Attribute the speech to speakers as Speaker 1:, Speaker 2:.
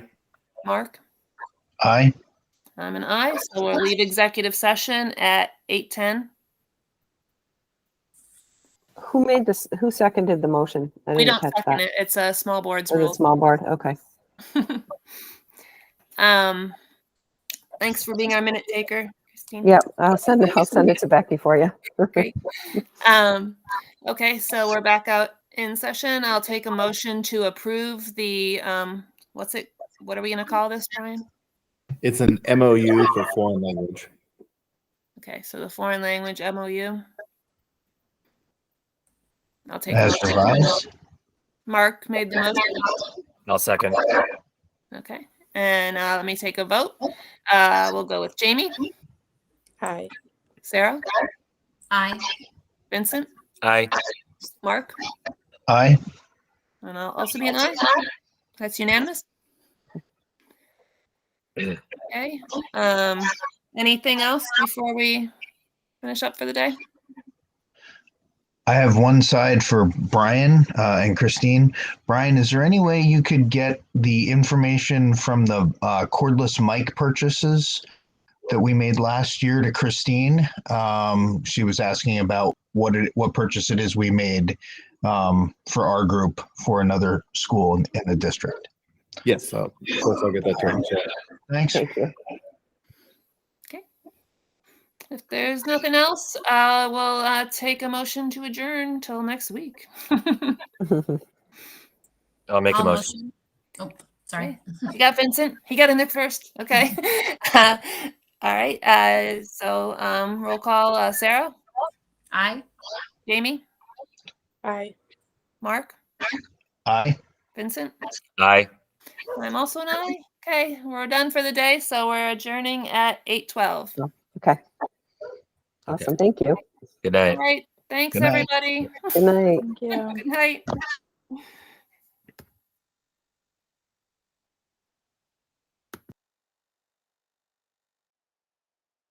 Speaker 1: Mark?
Speaker 2: Aye.
Speaker 1: I'm an aye, so we'll leave executive session at eight ten.
Speaker 3: Who made this, who seconded the motion? I
Speaker 1: We
Speaker 3: didn't
Speaker 1: don't
Speaker 3: catch
Speaker 1: second
Speaker 3: that.
Speaker 1: it. It's a small boards
Speaker 3: Oh, the
Speaker 1: rule.
Speaker 3: small board, okay.
Speaker 1: Um, thanks for being our minute taker, Christine.
Speaker 3: Yep, I'll send it, I'll send it to Becky for you.
Speaker 1: Great. Um, okay, so we're back out in session. I'll take a motion to approve the, um, what's it? What are we gonna call this, Brian?
Speaker 4: It's an MOU for foreign language.
Speaker 1: Okay, so the foreign language MOU. I'll take. a
Speaker 2: As
Speaker 1: motion.
Speaker 2: revised?
Speaker 1: Mark made the motion.
Speaker 5: I'll second.
Speaker 1: Okay, and uh, let me take a vote. Uh, we'll go with Jamie,
Speaker 6: Hi.
Speaker 1: Sarah,
Speaker 7: Aye.
Speaker 1: Vincent,
Speaker 5: Aye.
Speaker 1: Mark,
Speaker 2: Aye.
Speaker 1: and I'll also be an aye. That's unanimous. Okay. Um, anything else before we finish up for the day?
Speaker 2: I have one side for Brian uh, and Christine. Brian, is there any way you could get the information from the uh, cordless mic purchases that we made last year to Christine? Um, she was asking about what it, what purchase it is we made um, for our group for another school in, in the district.
Speaker 4: Yes, uh, of course I'll get that to her in chat.
Speaker 2: Thanks.
Speaker 3: Thank you.
Speaker 1: If there's nothing else, uh, we'll uh, take a motion to adjourn till next week. you
Speaker 5: I'll make a
Speaker 7: I'll
Speaker 5: motion.
Speaker 7: Oh, sorry.
Speaker 1: got Vincent. He got in there first. Okay. Uh, all right. Uh, so um, roll call: uh, Sarah,
Speaker 7: Aye.
Speaker 1: Jamie,
Speaker 6: Hi.
Speaker 1: Mark,
Speaker 2: Aye.
Speaker 1: Vincent.
Speaker 5: Aye.
Speaker 1: I'm also an aye. Okay, we're done for the day, so we're adjourning at eight twelve.
Speaker 3: Okay. Awesome, thank you.
Speaker 5: Good
Speaker 1: All
Speaker 5: night.
Speaker 1: right. Thanks,
Speaker 2: Good night.
Speaker 1: everybody.
Speaker 3: Good night.
Speaker 6: Thank you.
Speaker 1: Good night.